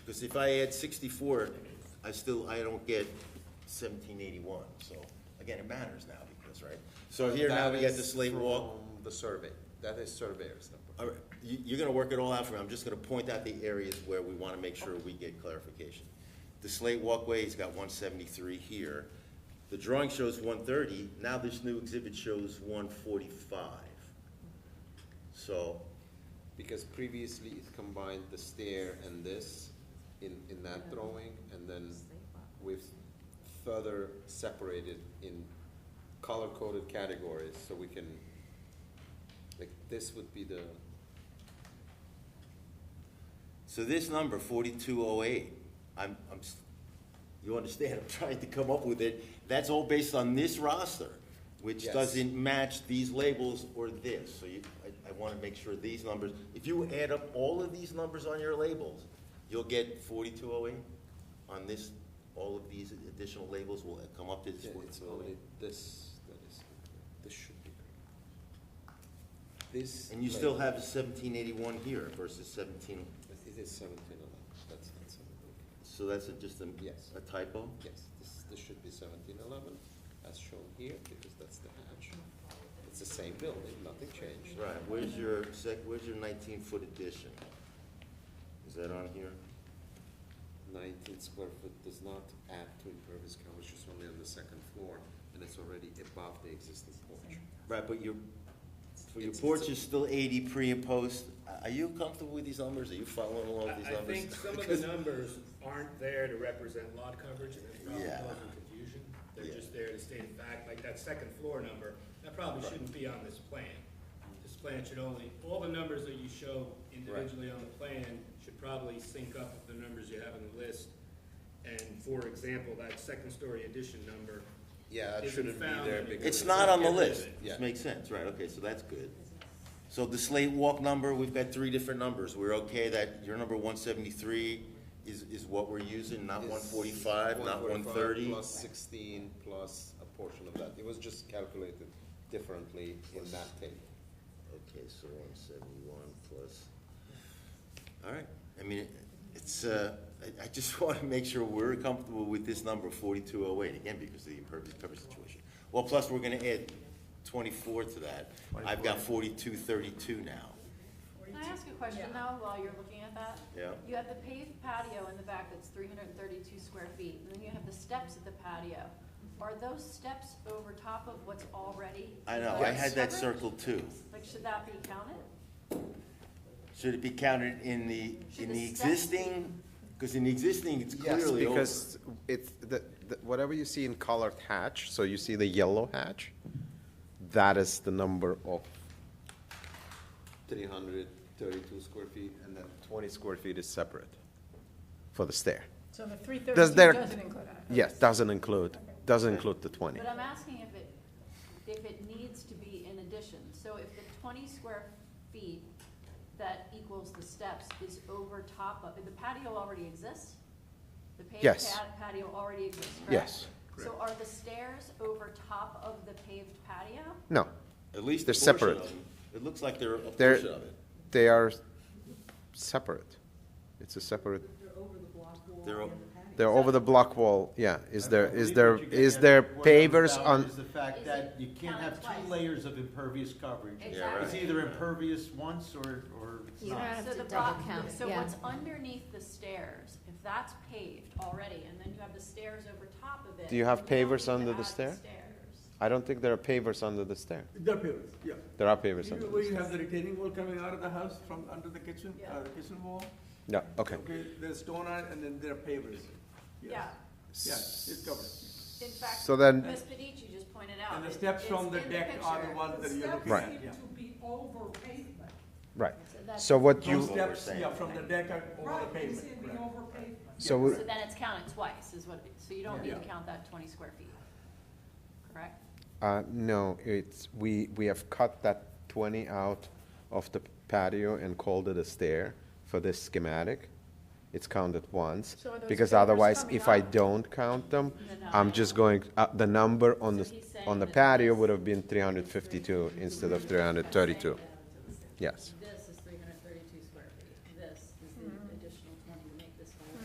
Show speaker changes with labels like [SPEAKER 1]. [SPEAKER 1] Because if I add sixty-four, I still, I don't get seventeen eighty-one, so, again, it matters now because, right? So here now we got the slate walk,
[SPEAKER 2] The survey, that is surveyor's number.
[SPEAKER 1] All right, you, you're gonna work it all out for me, I'm just gonna point out the areas where we wanna make sure we get clarification. The slate walkway's got one seventy-three here, the drawing shows one thirty, now this new exhibit shows one forty-five. So,
[SPEAKER 2] Because previously it combined the stair and this in, in that drawing, and then we've further separated in color-coded categories, so we can, like, this would be the,
[SPEAKER 1] So this number, forty-two oh eight, I'm, I'm, s- you understand, I'm trying to come up with it, that's all based on this roster, which
[SPEAKER 2] Yes.
[SPEAKER 1] doesn't match these labels or this, so you, I, I wanna make sure these numbers, if you add up all of these numbers on your labels, you'll get forty-two oh eight on this, all of these additional labels will come up to this
[SPEAKER 2] Yeah, it's
[SPEAKER 1] forty-two oh
[SPEAKER 2] only
[SPEAKER 1] eight.
[SPEAKER 2] this that is, incorrect. this should be correct. This.
[SPEAKER 1] And you still
[SPEAKER 2] label-
[SPEAKER 1] have seventeen eighty-one here versus seventeen,
[SPEAKER 2] It is seventeen eleven, that's not seventeen.
[SPEAKER 1] so that's a- just a,
[SPEAKER 2] Yes.
[SPEAKER 1] a typo?
[SPEAKER 2] Yes, this, this should be seventeen eleven, as shown here, because that's the hatch. It's the same building, nothing changed.
[SPEAKER 1] Right, where's your sec, where's your nineteen foot addition? Is that on here?
[SPEAKER 2] Nineteen square foot does not add to impervious coverage, it's only on the second floor, and it's already above the existing porch.
[SPEAKER 1] Right, but your, for your
[SPEAKER 2] It's-
[SPEAKER 1] porch
[SPEAKER 2] it's a-
[SPEAKER 1] is still eighty pre and post. Are- Are you comfortable with these numbers? Are you following along with
[SPEAKER 3] I
[SPEAKER 1] these
[SPEAKER 3] I
[SPEAKER 1] numbers?
[SPEAKER 3] think some of
[SPEAKER 1] Because-
[SPEAKER 3] the numbers aren't there to represent lot coverage, and it's probably
[SPEAKER 1] Yeah.
[SPEAKER 3] causing confusion.
[SPEAKER 1] Yeah.
[SPEAKER 3] They're just there to state a fact, like that second floor number, that probably shouldn't be on this plan. This plan should only, all the numbers that you show individually on the plan should probably sync up with the numbers you have in the list. And for example, that second story addition number,
[SPEAKER 2] Yeah, that
[SPEAKER 3] Isn't
[SPEAKER 2] shouldn't be
[SPEAKER 3] found
[SPEAKER 2] there
[SPEAKER 3] in-
[SPEAKER 2] because.
[SPEAKER 1] It's not on the
[SPEAKER 3] Everything.
[SPEAKER 1] list.
[SPEAKER 2] Yeah.
[SPEAKER 1] This makes sense, right, okay, so that's good. So the slate walk number, we've got three different numbers. We're okay that your number one seventy-three is, is what we're using, not
[SPEAKER 2] is
[SPEAKER 1] one forty-five, not one
[SPEAKER 2] 145
[SPEAKER 1] thirty?
[SPEAKER 2] Plus sixteen, plus a portion of that, it was just calculated differently in that table.
[SPEAKER 1] Okay, so one seventy-one plus, all right, I mean, it- it's, uh, I, I just wanna make sure we're comfortable with this number, forty-two oh eight, again, because of the impervious coverage situation. Well, plus, we're gonna add twenty-four to that, I've got forty-two thirty-two now,
[SPEAKER 4] Can I ask a question though, while you're looking at that?
[SPEAKER 1] Yeah.
[SPEAKER 4] You have the paved patio in the back that's three hundred and thirty-two square feet, and then you have the steps at the patio. Are those steps over top of what's already?
[SPEAKER 1] I know, I had that
[SPEAKER 4] covered?
[SPEAKER 1] circled too.
[SPEAKER 4] Like, should that be counted?
[SPEAKER 1] Should it be counted in the,
[SPEAKER 4] Should
[SPEAKER 1] in
[SPEAKER 4] the
[SPEAKER 1] the
[SPEAKER 4] steps be-
[SPEAKER 1] existing, cause in the existing, it's
[SPEAKER 2] Yes,
[SPEAKER 1] clearly over.
[SPEAKER 2] because it's, the, the- whatever you see in colored hatch, so you see the yellow hatch, that is the number of. Three hundred thirty-two square feet, and then twenty square feet is separate for the stair.
[SPEAKER 5] So the
[SPEAKER 2] Does
[SPEAKER 5] 332
[SPEAKER 2] there-
[SPEAKER 5] doesn't include that?
[SPEAKER 2] Yes, doesn't include, doesn't include the twenty.
[SPEAKER 4] But I'm asking if it, if it needs to be in addition. So if the twenty square feet that equals the steps is over top of, the patio already exists? The paved
[SPEAKER 2] Yes.
[SPEAKER 4] pa- patio already exists, correct?
[SPEAKER 2] Yes.
[SPEAKER 4] So are the stairs over top of the paved patio?
[SPEAKER 2] No,
[SPEAKER 1] At least
[SPEAKER 2] They're
[SPEAKER 1] a portion of
[SPEAKER 2] separate.
[SPEAKER 1] them. It looks like they're a
[SPEAKER 2] They're-
[SPEAKER 1] portion of it,
[SPEAKER 2] they are separate. It's a separate,
[SPEAKER 6] They're over the block wall
[SPEAKER 1] They're o-
[SPEAKER 6] and the patio.
[SPEAKER 2] they're over the block wall, yeah. Is there,
[SPEAKER 7] I
[SPEAKER 2] is
[SPEAKER 7] believe
[SPEAKER 2] there,
[SPEAKER 7] what you get
[SPEAKER 2] is
[SPEAKER 7] at
[SPEAKER 2] there
[SPEAKER 7] what I'm
[SPEAKER 2] pavers
[SPEAKER 7] about
[SPEAKER 2] on,
[SPEAKER 7] Is the fact
[SPEAKER 4] Is
[SPEAKER 7] that
[SPEAKER 4] it
[SPEAKER 7] you can't
[SPEAKER 4] counted
[SPEAKER 7] have two
[SPEAKER 4] twice?
[SPEAKER 7] layers of impervious coverage.
[SPEAKER 4] Exactly.
[SPEAKER 7] It's either impervious once or, or it's
[SPEAKER 8] You
[SPEAKER 7] not.
[SPEAKER 8] have
[SPEAKER 4] So
[SPEAKER 8] to
[SPEAKER 4] the
[SPEAKER 8] double
[SPEAKER 4] block-
[SPEAKER 8] count,
[SPEAKER 4] So
[SPEAKER 8] yeah.
[SPEAKER 4] what's underneath the stairs, if that's paved already, and then you have the stairs over top of it.
[SPEAKER 2] Do you have
[SPEAKER 4] then don't
[SPEAKER 2] pavers
[SPEAKER 4] need to
[SPEAKER 2] under the
[SPEAKER 4] add
[SPEAKER 2] stair?
[SPEAKER 4] stairs.
[SPEAKER 2] I don't think there are pavers under the stair.
[SPEAKER 9] The appearance, yeah.
[SPEAKER 2] There are pavers under
[SPEAKER 9] Even
[SPEAKER 2] the
[SPEAKER 9] where
[SPEAKER 2] stair.
[SPEAKER 9] you have the retaining wall coming out of the house from under the kitchen,
[SPEAKER 4] Yeah.
[SPEAKER 9] uh, kitchen wall.
[SPEAKER 2] Yeah, okay.
[SPEAKER 9] Okay, there's stone on it and then there are pavers. Yes.
[SPEAKER 4] Yeah,
[SPEAKER 9] Yeah, it's covered.
[SPEAKER 4] in fact,
[SPEAKER 2] So then-
[SPEAKER 4] Ms. Pedici just pointed out.
[SPEAKER 9] And the
[SPEAKER 4] it-
[SPEAKER 9] steps
[SPEAKER 4] it's
[SPEAKER 9] from the
[SPEAKER 4] in
[SPEAKER 9] deck are the
[SPEAKER 4] picture.
[SPEAKER 9] ones that you're looking
[SPEAKER 2] Right.
[SPEAKER 9] at, yeah.
[SPEAKER 6] To be over pavement.
[SPEAKER 2] Right.
[SPEAKER 8] that's-
[SPEAKER 2] So what
[SPEAKER 9] Those
[SPEAKER 2] you,
[SPEAKER 1] what we're
[SPEAKER 9] steps,
[SPEAKER 1] saying.
[SPEAKER 9] yeah, from the deck are over the
[SPEAKER 6] Right, you
[SPEAKER 9] pavement.
[SPEAKER 6] see it being
[SPEAKER 9] right.
[SPEAKER 6] over pavement.
[SPEAKER 2] so,
[SPEAKER 9] Yeah.
[SPEAKER 4] So
[SPEAKER 2] we-
[SPEAKER 4] then it's counted twice, is what, it- so you don't need to
[SPEAKER 9] Yeah.
[SPEAKER 4] count that twenty square feet, correct?
[SPEAKER 2] uh, no, it's, we, we have cut that twenty out of the patio and called it a stair for this schematic. It's counted once,
[SPEAKER 5] So are those
[SPEAKER 2] because
[SPEAKER 5] pavers
[SPEAKER 2] otherwise,
[SPEAKER 5] coming
[SPEAKER 2] if I
[SPEAKER 5] out?
[SPEAKER 2] don't count them,
[SPEAKER 4] Then
[SPEAKER 2] I'm
[SPEAKER 4] I'll-
[SPEAKER 2] just going, uh, the number on the,
[SPEAKER 4] So he's saying
[SPEAKER 2] on the
[SPEAKER 4] that
[SPEAKER 2] patio
[SPEAKER 4] this-
[SPEAKER 2] would have been three hundred fifty-two instead of three hundred thirty-two. Yes.
[SPEAKER 4] This Mm-hmm.